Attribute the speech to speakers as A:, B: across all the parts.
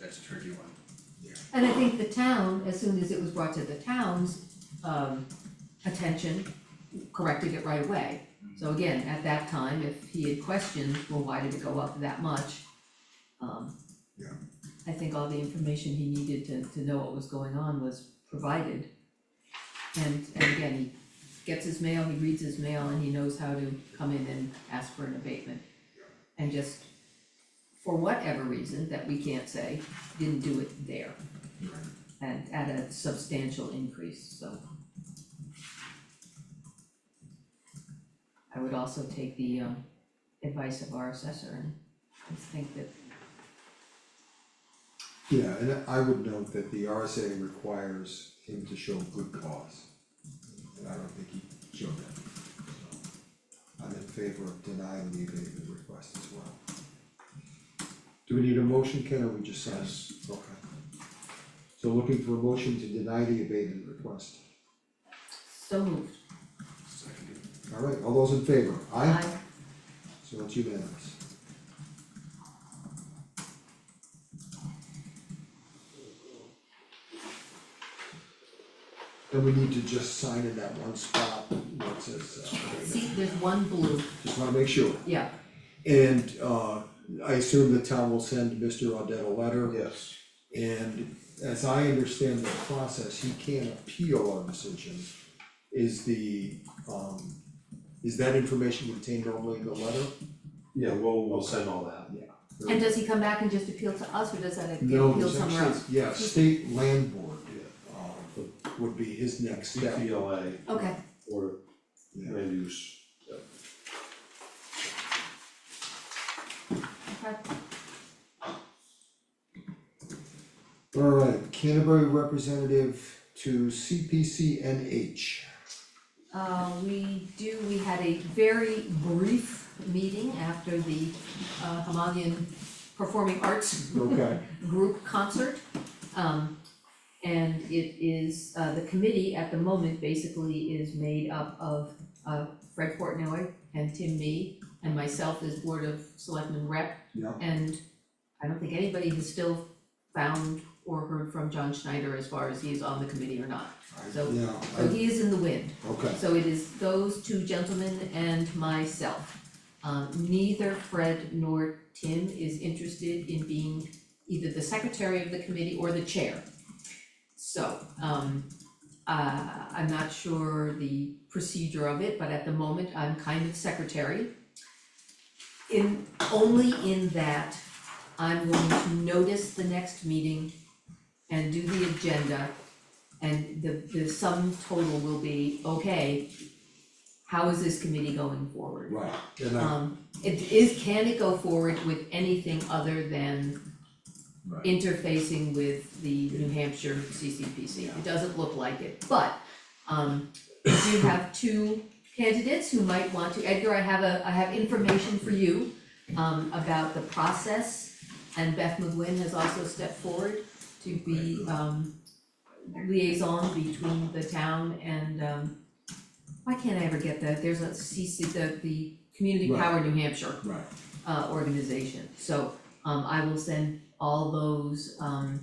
A: that's a tricky one.
B: And I think the town, as soon as it was brought to the town's um attention, corrected it right away. So again, at that time, if he had questioned, well, why did it go up that much? Um.
C: Yeah.
B: I think all the information he needed to to know what was going on was provided. And and again, he gets his mail, he reads his mail, and he knows how to come in and ask for an abatement. And just, for whatever reason that we can't say, didn't do it there and at a substantial increase, so. I would also take the um advice of our assessor and I think that,
C: Yeah, and I would note that the RSA requires him to show good cause. And I don't think he showed that, so. I'm in favor of denying the abatement request as well. Do we need a motion, Ken, or we just sign? Yes. Okay. So looking for a motion to deny the abatement request.
B: so moved,
A: Seconded.
C: All right, all those in favor?
B: I,
C: So it's unanimous. Then we need to just sign in that one spot, what says, uh,
B: see, there's one blue,
C: just wanna make sure.
B: yeah,
C: And, uh, I assume the town will send Mr. Audette a letter.
D: Yes,
C: And as I understand the process, he can appeal our decision. Is the, um, is that information contained only in the letter?
D: yeah, we'll, we'll send all that.
B: and does he come back and just appeal to us or does that appeal
C: No,
B: appeal
C: there's
B: somewhere
C: actually,
B: else?
C: yeah, state land board,
D: Yeah.
C: um, would be his next step.
D: CPLA
B: Okay,
D: or
C: Yeah.
D: land use.
B: okay,
C: Alright, Canterbury representative to CPCNH.
B: uh we do, we had a very brief meeting after the uh Himalayan Performing Arts
C: Okay.
B: group concert. Um, and it is, uh, the committee at the moment basically is made up of, uh, Fred Portnoy and Tim Mee and myself as Board of Selectmen rep.
C: Yeah.
B: And I don't think anybody has still found or heard from John Schneider as far as he is on the committee or not. So,
C: Yeah,
B: so
C: I-
B: he is in the wind.
C: okay,
B: So it is those two gentlemen and myself. Um, neither Fred nor Tim is interested in being either the secretary of the committee or the chair. So, um, uh, I'm not sure the procedure of it, but at the moment, I'm kind of secretary. In, only in that I'm going to notice the next meeting and do the agenda and the, the sum total will be, okay, how is this committee going forward?
C: right, and I,
B: Um, it is, can it go forward with anything other than
A: Right.
B: interfacing with the New Hampshire CCPC? It doesn't look like it, but, um, we do have two candidates who might want to, Edgar, I have a, I have information for you, um, about the process, and Beth McGuinn has also stepped forward to be, um, liaison between the town and, um, why can't I ever get that, there's a CC, the, the Community
C: Right.
B: Power New Hampshire
C: right,
B: uh organization, so um I will send all those um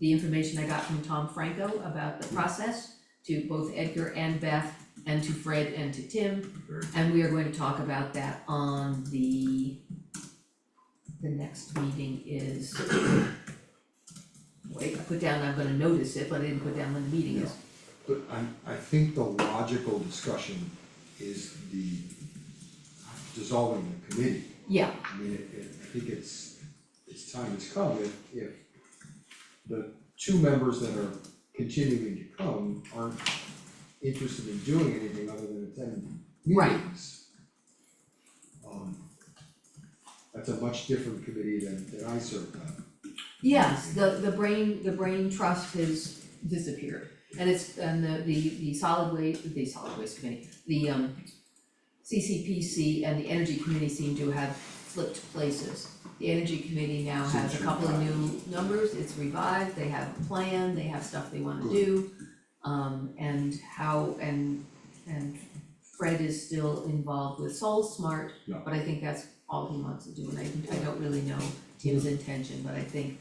B: the information I got from Tom Franco about the process to both Edgar and Beth and to Fred and to Tim,
A: Very
B: and we are going to talk about that on the the next meeting is wait, I put down, I'm gonna notice it, but I didn't put down when the meeting is.
C: but I, I think the logical discussion is the dissolving the committee.
B: Yeah,
C: I mean, it, it, I think it's, it's time has come, if, if the two members that are continuing to come aren't interested in doing anything other than attending
B: Right.
C: meetings. Um, that's a much different committee than, than I served on.
B: Yes, the the brain, the brain trust has disappeared. And it's, and the the the solid waste, the solid waste committee, the um CCPC and the energy committee seem to have flipped places. The energy committee now has a couple of new numbers, it's revived, they have a plan, they have stuff they wanna do. Um and how, and and Fred is still involved with Soul Smart,
C: Yeah.
B: but I think that's all he wants to do, and I I don't really know Tim's intention, but I think